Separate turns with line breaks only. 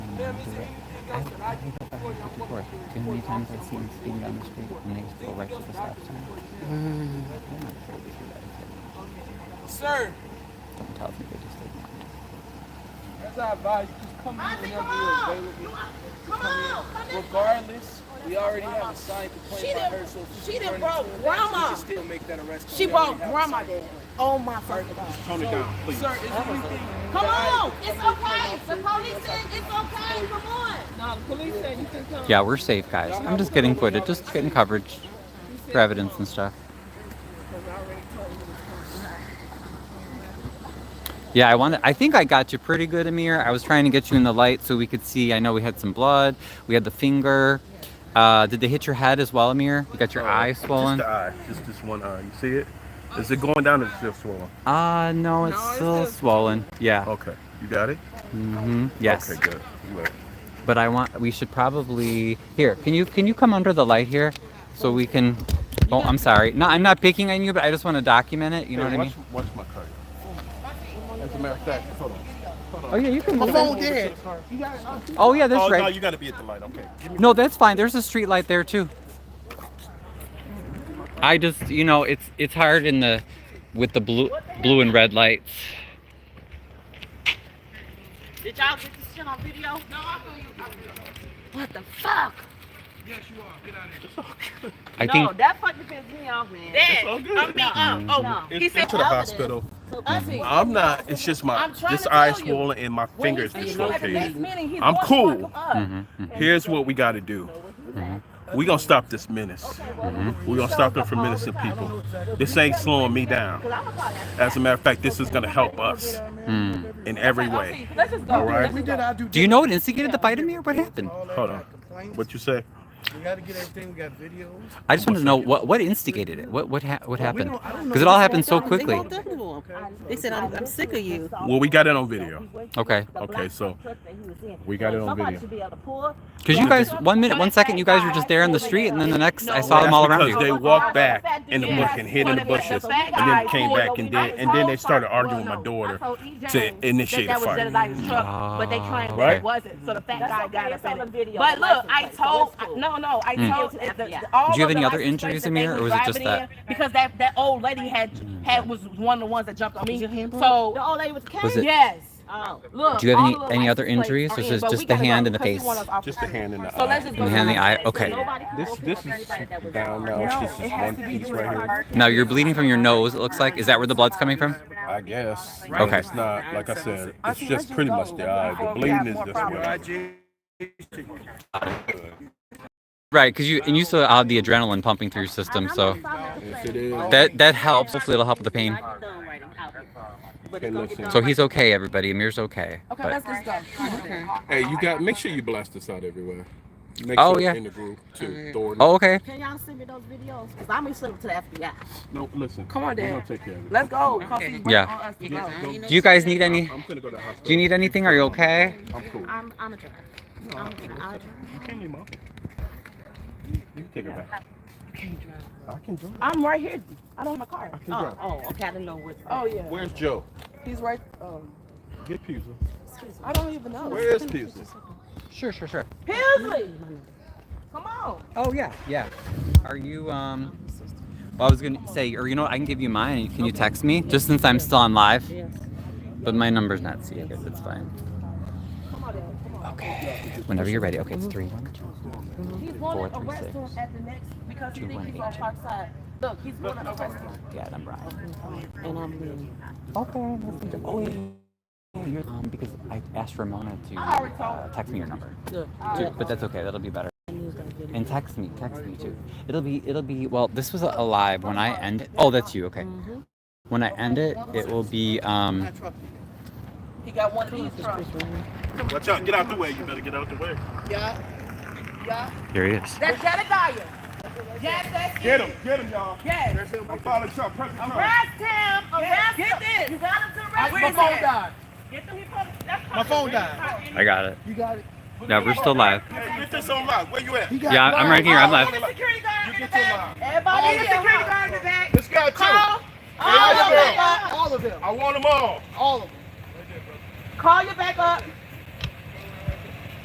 After work, too many times I've seen speeding down the street and they just go right to the stop sign. They're not afraid to do that.
Sir,
Don't tell them they just did.
as I advise you, just come in whenever you're available.
Come on!
Regardless, we already have a signed
She
complaint by
done-
her, so if
she
she's
done
turning
brought
to it,
grandma.
we can still make that arrest.
She
whenever
brought
we have a
grandma
signed
there. Oh my fucking God.
Tone it down, please.
Sir, is there anything?
Come on! It's okay. The police said it's okay. Come on.
Yeah, we're safe, guys. I'm just getting footage, just getting coverage for evidence and stuff. Yeah, I wanted. I think I got you pretty good, Amir. I was trying to get you in the light so we could see. I know we had some blood. We had the finger. Uh, did they hit your head as well, Amir? You got your eye swollen.
Uh, Just the eye. Just this one eye. You see it? Is it going down or is it still swollen?
Uh, no, it's still swollen. Yeah.
Okay. You got it?
hmm Yes.
Okay, good. Good.
But I want. We should probably. Here, can you can you come under the light here, so we can. Oh, I'm sorry. No, I'm not picking on you, but I just want to document it. You know
Hey,
what I mean?
Watch, watch my car. As a matter of fact, hold on.
Oh yeah, you can.
My
move
phone
it.
dead.
Oh yeah, that's
Oh, no,
right.
you gotta be at the light. Okay. Give me
No, that's fine. There's a street light there too. I just, you know, it's it's hard in the with the blue blue and red lights.
Did y'all get this shit on video? No, I What the fuck?
I think
that fucking pissed me off, man. That,
all good.
me
Mm-hmm.
off. Oh, no.
It's to the hospital. Mm-hmm. I'm not. It's just my
I'm trying
this
to
eye
tell you.
swolling and my finger is dislocated. I'm
I'm
cool. Here's what we gotta do.
Mm-hmm.
We gonna stop this menace. We gonna stop them from menacing people. This ain't slowing me down. As a matter of fact, this is gonna help us in every way.
Let's just
All right.
We did our due
Hmm. Do you know what instigated the fight, Amir? What happened?
Hold on. What you say?
We gotta get everything. We got videos.
I just wanted to know what what instigated it. What what ha- what happened?
don't- I don't know
Because it all happened so quickly.
They said, I'm, I'm sick of you.
Well, we got it on video.
Okay.
Okay, so we got it on video.
Because you guys, one minute, one second, you guys were just there in the street, and then the next, I saw them all around
because
you.
they walked back in the bush and hid in the bushes, and then came back and did, and then they started arguing with my daughter to initiate a fight.
But they trying,
Right.
it wasn't. So the fat guy got up in it.
But look, I told,
I-
no, no, I told.
Mm.
the- the-
Did
all
Did you have
of
any
the
other
license
injuries,
plates that they
Amir,
was
or was it just
driving
that?
in, Because that, that old lady had, had, was one of the ones that jumped on me. So,
The old lady was carrying. oh,
Was it?
yes.
Look.
Do you have any
all of the
any
license
other
plates
injuries,
are
or is
in,
it
but we
just the
gotta
hand
go
and the
because you
face?
want us off
Just
the
the hand in the
So let's
eye.
just go.
And the hand in the
down.
eye. Okay.
This this is down now. It's just this one piece right here.
Now you're bleeding from your nose. It looks like. Is that where the blood's coming from?
I guess.
Okay.
But It's not like I said. It's just pretty much the eye. The bleeding is this way.
Right, because you and you still have the adrenaline pumping through your system, so
Yes, it is.
that that helps. Hopefully, it'll help with the pain.
Hey, listen.
So he's okay, everybody. Amir's okay.
Okay,
but-
let's just go. Okay.
Hey, you got. Make sure you blast this out everywhere. Make
Oh, sure yeah. in
the group too. Thornton.
oh, okay.
Can y'all send me those videos? Because I'm going to send them to the FBI.
No, listen.
Come on,
We're
Dad.
gonna take care of it.
Let's go. 'cause he's waiting
Yeah.
on us to go.
Do you guys need any?
I'm gonna go to the hospital.
Do you need anything? Are you okay?
I'm cool.
I'm, I'm a driver. I'm a driver. I'll drive.
You can't leave mom. You can take her back. I can drive.
I'm right here. I don't have my car.
I can drive.
Oh, okay. I didn't know what.
Oh, yeah.
Where's Joe?
He's right, um,
Get Pizza.
I don't even know.
Where is Pizza?
Sure, sure, sure.
Paisley! Come on.
Oh yeah, yeah. Are you um? Well, I was gonna say, or you know, what, I can give you mine. Can you text me just since I'm still on live? But my number's not secret. It's fine. Okay. Whenever you're ready. Okay, it's three one two.
He's
Four,
wanted
three,
arrest
six.
him at the next, because he
Two,
thinks
one,
he's on
eight.
Parkside. Look, he's wanted arrest him.
Yeah, I'm right.
And I'm Oh, leaving.
Okay. that's good. Oh, yeah. yeah, yeah. Um, because I asked Ramona to
Ah,
I already told
uh, text me your number,
Look,
too, but that's okay. That'll be better.
I knew that video.
And text me, text me too. It'll be, it'll be. Well, this was a live when I end. Oh, that's you. Okay.
Mm-hmm.
When I end it, it will be. Um,
He got one of these trucks.
Watch out! Get out the way. You better get out the way.
Here he is.
That's Jedediah. Yes, that's
Get him! Get him, y'all!
Yes.
I'm following Trump. Press the Trump.
Arrest him, arrest him. Get this. You got him to arrest him.
My phone died.
Get them, he probably- that's
My phone
probably-
died.
I got it.
You got it.
Yeah, we're still live.
Hey, get this on lock. Where you at?
He got
Yeah, I'm right here. I'm
Oh,
live.
and the security guard
You
in the
get your
back. Everybody
All
in the
of them.
security guard in the back.
This guy
Call,
too.
all
All
of them
of them.
back up.
All of them.
I want them all.
All of them.
Call you back up.